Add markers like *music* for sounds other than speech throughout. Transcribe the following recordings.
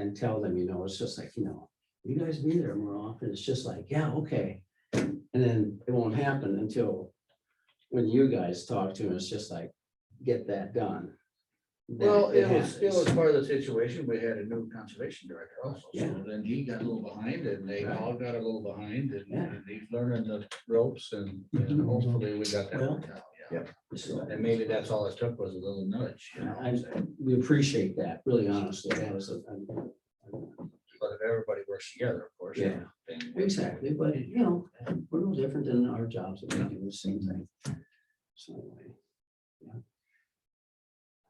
and tell them, you know, it's just like, you know, you guys be there more often. It's just like, yeah, okay. And then it won't happen until when you guys talk to them, it's just like, get that done. Then Well, it was, it happens. was part of the situation, we had a new conservation director also, Yeah. so then he got a little behind and they Right. all got a little behind and Yeah. and he's learning the ropes and and hopefully we got that Well, worked out. Yeah, So- and maybe that's all it took was a little nudge, you know, I, we appreciate that, really honestly, that was a. a- but if everybody works together, of course. Yeah. then- Exactly, but you know, we're no different than our jobs, that we do the same thing. So anyway, yeah.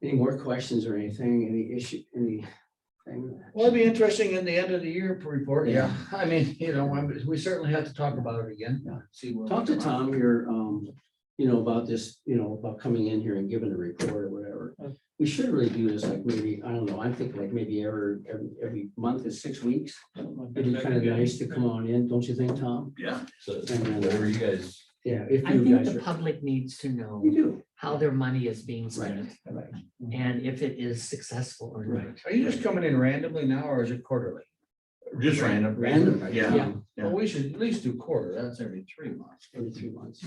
Any more questions or anything, any issue, anything? Well, it'd be interesting in the end of the year report, yeah, *laughs* Yeah. I mean, you know, I'm- we certainly have to talk about it again, Yeah. see. where we Talk to come out. Tom here, um, you know, about this, you know, about coming in here and giving a report or whatever. Uh. We should really do this like maybe, I don't know, I'm thinking like maybe every, every, every month is six weeks. It'd be kind of nice to come on in, don't you think, Tom? Yeah. So And then, whatever you guys, Yeah, if I you think guys the are. public needs to know We do. how their money is being Right, spent right, and if it is successful or not. right. Are you just coming in randomly now or is it quarterly? just random. Random. right? Yeah. Well, we should at least do quarter, that's every three months. Every three months.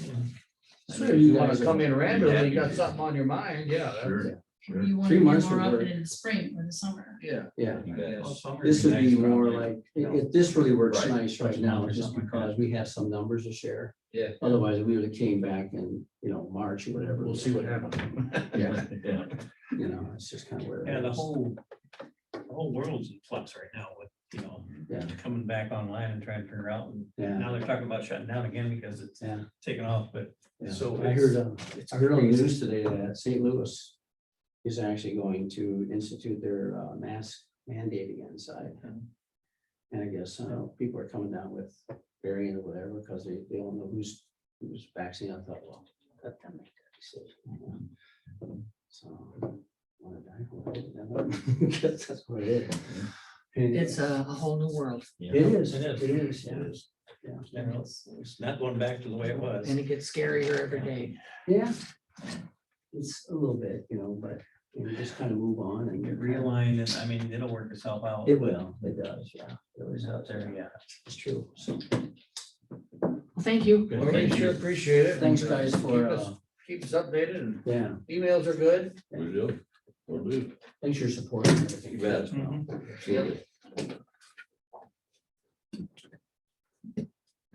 So if you wanna come in randomly, you got Yeah. something on your mind, yeah. that's- Sure. Maybe you want Three to be more months would often work. in the spring or the summer. Yeah. Yeah, You guys. this would be more like, you know. if this really works Right, nice right right, now, numbers, just something like because we have some numbers to share. Yeah. Otherwise, we would have came back in, you know, March or whatever. We'll see what happens. Yeah, Yeah. you know, it's just kind of where. it Yeah, the is. whole, the whole world's in flux right now with, you know, Yeah. coming back online and trying to figure out. And Yeah, Now they're talking about shutting down again because it's Yeah. taken off, but yeah. So I it's- heard, uh, I heard on the news today that St. Louis is actually going to institute their uh, mask mandate again inside. Hmm. And I guess, uh, people are coming down with variant or whatever, because they, they don't know who's, who's vaccinated. I thought, well, let them make that decision. you know? So, wanna die for it, you know? *laughs* Guess That's what it is. And It's uh, a, a whole new world It is, It it is. is, yeah, it is, yeah. you know, it's it's not going back to the way it was. and it gets scarier every day. Yeah. It's a little bit, you know, but you know, just kind of move on and get real. Realign and I mean, it'll work itself out. It will, it does, yeah. It always It's out does. there, yeah. It's true. So Well, thank you. Good, Well, we thank sure you. appreciate it. thanks and, uh, guys keep for, us- uh, Keep us updated and yeah, emails are good. Will do. Will do. thanks for your support. and everything. You bet. Mm-hmm. Mhm.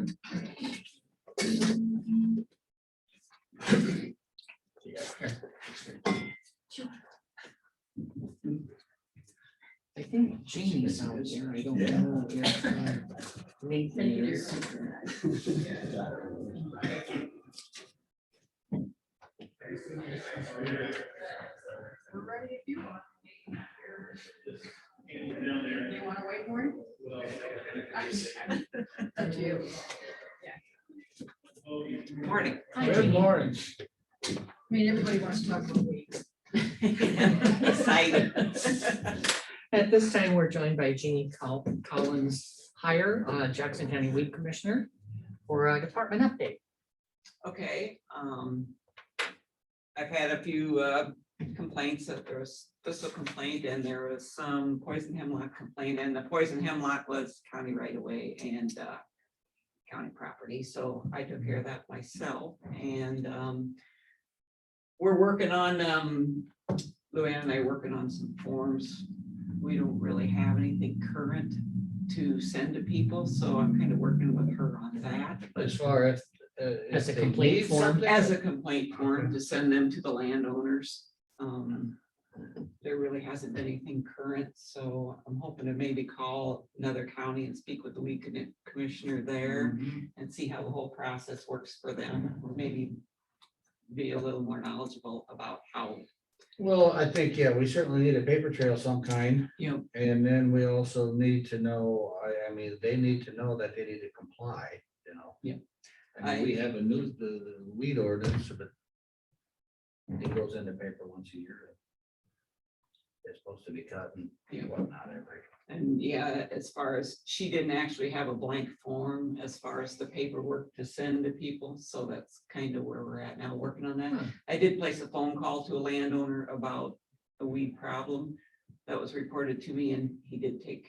I think Janie's out there. I don't know. if, uh, Nathan is. You wanna wait for it? Up to you. Morning. Good morning. I mean, everybody wants to talk about weeds. Excited. At this time, we're joined by Jeannie Col- Collins Hire, uh, Jackson County Weed Commissioner, for a department update. Okay, um. I've had a few uh, complaints that there was thistle complaint and there was some poison hemlock complaint and the poison hemlock was county right away and uh. County property, so I took care of that myself and um. We're working on um, Luann and I are working on some forms. We don't really have anything current to send to people, so I'm kind of working with her on that. As far as. uh, if As a they complete need form. something- As a complaint form to send them to the landowners. Um, There really hasn't been anything current, so I'm hoping to maybe call another county and speak with the weed commi- commissioner there Mm-hmm. and see how the whole process works for them, or maybe be a little more knowledgeable about how, Well, I think, yeah, we certainly need a paper trail of some kind. you know, And then we also need to know, I, I mean, they need to know that they need to comply, you know? Yeah. I mean, we have a new, the, the weed ordinance, but Mm-hmm. it goes in the paper once a year. It's supposed to be cut and Yeah. whatnot every. and yeah, as far as, she didn't actually have a blank form as far as the paperwork to send to people, so that's kind of where we're at now, working on that. Hmm. I did place a phone call to a landowner about the weed problem that was reported to me and he did take